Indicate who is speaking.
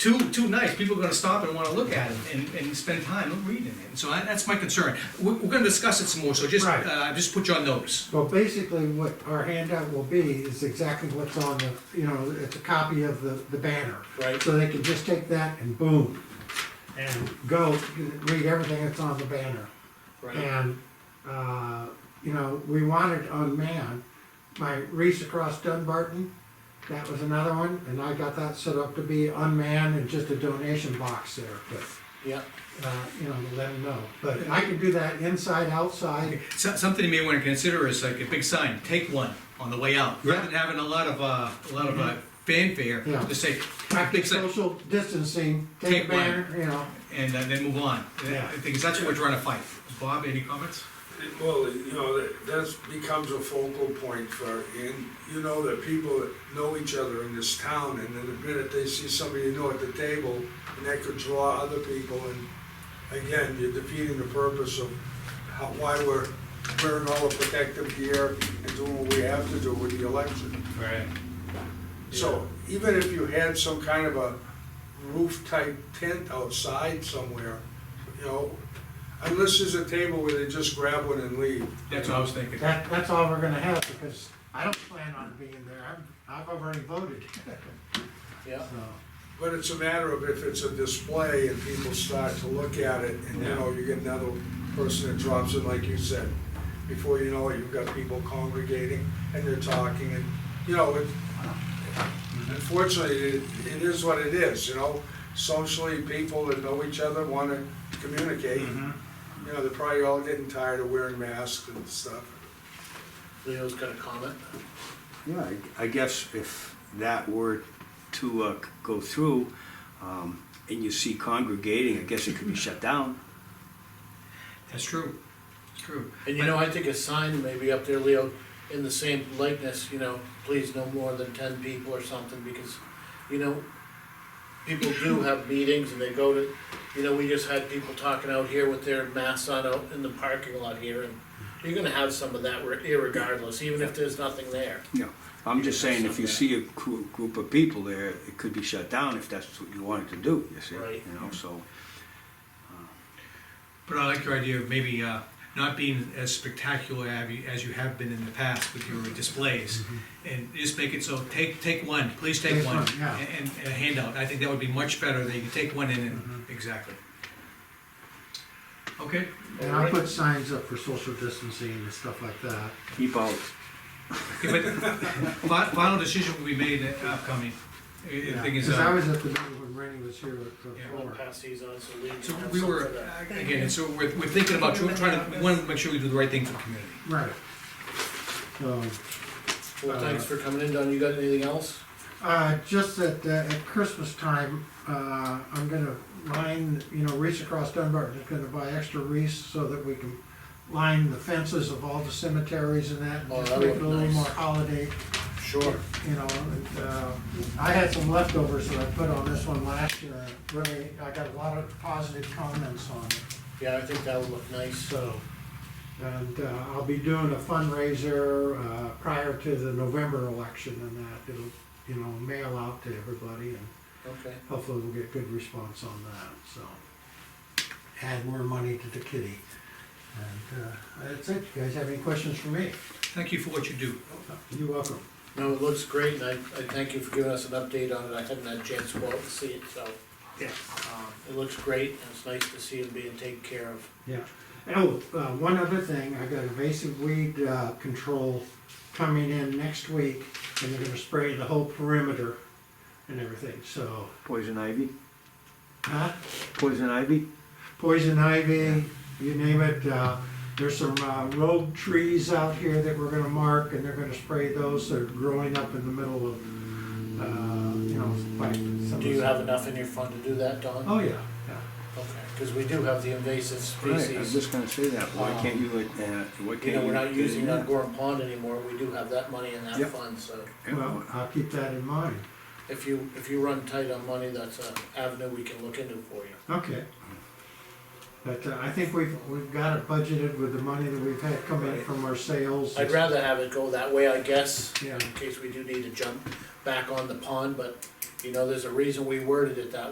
Speaker 1: too, too nice, people are gonna stop and wanna look at it and, and spend time reading it. And So that- that's my concern. We're, we're gonna discuss it some more, so just,
Speaker 2: Right.
Speaker 1: uh, just put you on notice.
Speaker 2: Well, basically, what our handout will be is exactly what's on the, you know, it's a copy of the, the banner.
Speaker 1: Right.
Speaker 2: So they can just take that and boom, and go read everything that's on the banner. And, uh, you know, we wanted unmanned, my race across Dunbarton, that was another one, and I got that set up to be unmanned and just a donation box there, but,
Speaker 1: Yeah.
Speaker 2: uh, you know, to let them know. But I can do that inside, outside,
Speaker 1: So- Something you may wanna consider is like a big sign, take one on the way out, rather than having a lot of, uh, a lot of, uh, fanfare,
Speaker 2: Yeah.
Speaker 1: just say, big
Speaker 2: practice
Speaker 1: sign,
Speaker 2: social distancing, take
Speaker 1: Take
Speaker 2: a
Speaker 1: one.
Speaker 2: banner, you know.
Speaker 1: and uh, then move on.
Speaker 2: Yeah.
Speaker 1: I think that's what we're trying to fight. Bob, any comments?
Speaker 3: Well, you know, that that's becomes a focal point for, and you know that people that know each other in this town, and then the minute they see somebody you know at the table, and that could draw other people, and again, you're defeating the purpose of how, why we're wearing all the protective gear and doing what we have to do with the election.
Speaker 1: Right.
Speaker 3: So even if you had some kind of a roof type tent outside somewhere, you know, unless there's a table where they just grab one and leave.
Speaker 1: That's what I was thinking.
Speaker 2: That, that's all we're gonna have, because I don't plan on being there, I've, I've already voted.
Speaker 1: Yeah.
Speaker 2: So,
Speaker 3: But it's a matter of if it's a display and people start to look at it and, you know, you get another person that drops in, like you said. Before you know it, you've got people congregating and they're talking and, you know, it, unfortunately, it, it is what it is, you know? Socially, people that know each other wanna communicate. You know, they're probably all getting tired of wearing masks and stuff.
Speaker 4: Leo's got a comment.
Speaker 5: Yeah, I I guess if that were to uh, go through, um, and you see congregating, I guess it could be shut down.
Speaker 1: That's true. It's true.
Speaker 4: And you know, I think a sign maybe up there, Leo, in the same likeness, you know, please no more than ten people or something, because, you know, people do have meetings and they go to, you know, we just had people talking out here with their masks on out in the parking lot here, and you're gonna have some of that re- irregardless, even if there's nothing there.
Speaker 5: You know, I'm just saying, if you see a gr- group of people there, it could be shut down if that's what you wanted to do, you see?
Speaker 4: Right.
Speaker 5: You know, so,
Speaker 1: But I like your idea of maybe uh, not being as spectacular av- as you have been in the past with your displays. And just make it so, take, take one, please take
Speaker 2: Mm-hmm. Take
Speaker 1: one.
Speaker 2: one, yeah.
Speaker 1: And, and a handout. I think that would be much better, that you can take one in and,
Speaker 2: Mm-hmm.
Speaker 1: exactly. Okay,
Speaker 2: And I'll put signs up for social distancing and stuff like that.
Speaker 5: keep out.
Speaker 1: Okay, but fi- final decision will be made at upcoming. Uh, The thing is,
Speaker 2: Cause I
Speaker 1: uh,
Speaker 2: was at the meeting when Rennie was here for
Speaker 1: Yeah.
Speaker 4: I'm gonna
Speaker 2: four.
Speaker 4: pass these on, so Leo can
Speaker 1: so
Speaker 4: have
Speaker 1: we
Speaker 4: some
Speaker 1: were,
Speaker 4: for that.
Speaker 1: uh, again, so we're, we're thinking about trying to, we want to make sure we do the right thing for the community.
Speaker 2: Right. So,
Speaker 1: Uh,
Speaker 4: Well, thanks for coming in, Don, you got anything else?
Speaker 2: uh, just that, uh, at Christmas time, uh, I'm gonna line, you know, Reese Across Dunbar is gonna buy extra wreaths so that we can line the fences of all the cemeteries and that. and
Speaker 4: Oh,
Speaker 2: just
Speaker 4: that
Speaker 2: make
Speaker 4: would
Speaker 2: it
Speaker 4: be
Speaker 2: A little
Speaker 4: nice.
Speaker 2: more holiday
Speaker 4: Sure.
Speaker 2: you know, and, uh, I had some leftovers that I put on this one last year, and really, I got a lot of positive comments on it,
Speaker 4: Yeah, I think that'll look nice.
Speaker 2: so. And, uh, I'll be doing a fundraiser, uh, prior to the November election and that, it'll, you know, mail out to everybody, and
Speaker 4: Okay.
Speaker 2: hopefully we'll get good response on that, so. Add more money to the kitty. And, uh, that's it, you guys have any questions for me?
Speaker 1: Thank you for what you do.
Speaker 2: You're welcome.
Speaker 4: No, it looks great, and I, I thank you for giving us an update on it, I haven't had a chance to go out and see it, so.
Speaker 2: Yeah.
Speaker 4: Um, it looks great, and it's nice to see it being taken care of.
Speaker 2: Yeah. Oh, uh, one other thing, I got invasive weed, uh, control coming in next week, and they're gonna spray the whole perimeter and everything, so,
Speaker 5: Poison ivy,
Speaker 2: huh?
Speaker 5: poison ivy?
Speaker 2: Poison ivy, you name it, uh, there's some, uh, rogue trees out here that we're gonna mark, and they're gonna spray those that are growing up in the middle of, uh, you know, by some. of
Speaker 4: Do you
Speaker 2: the-
Speaker 4: have enough in your fund to do that, Don?
Speaker 2: Oh, yeah, yeah.
Speaker 4: Okay, because we do have the invasive
Speaker 5: Right, I was
Speaker 4: species.
Speaker 5: just gonna say that, why
Speaker 4: Um,
Speaker 5: can't you, uh, why can't you?
Speaker 4: You know, we're not
Speaker 5: get
Speaker 4: using
Speaker 5: in there?
Speaker 4: on Gorham Pond anymore, we do have that money in that
Speaker 5: Yep.
Speaker 4: fund, so.
Speaker 5: Yeah.
Speaker 2: Well, I'll keep that in mind.
Speaker 4: If you, if you run tight on money, that's an avenue we can look into for you.
Speaker 2: Okay. But uh, I think we've, we've got it budgeted with the money that we've had come in from our sales.
Speaker 4: I'd rather have it go that way, I guess,
Speaker 2: Yeah.
Speaker 4: in case we do need to jump back on the pond, but, you know, there's a reason we worded it that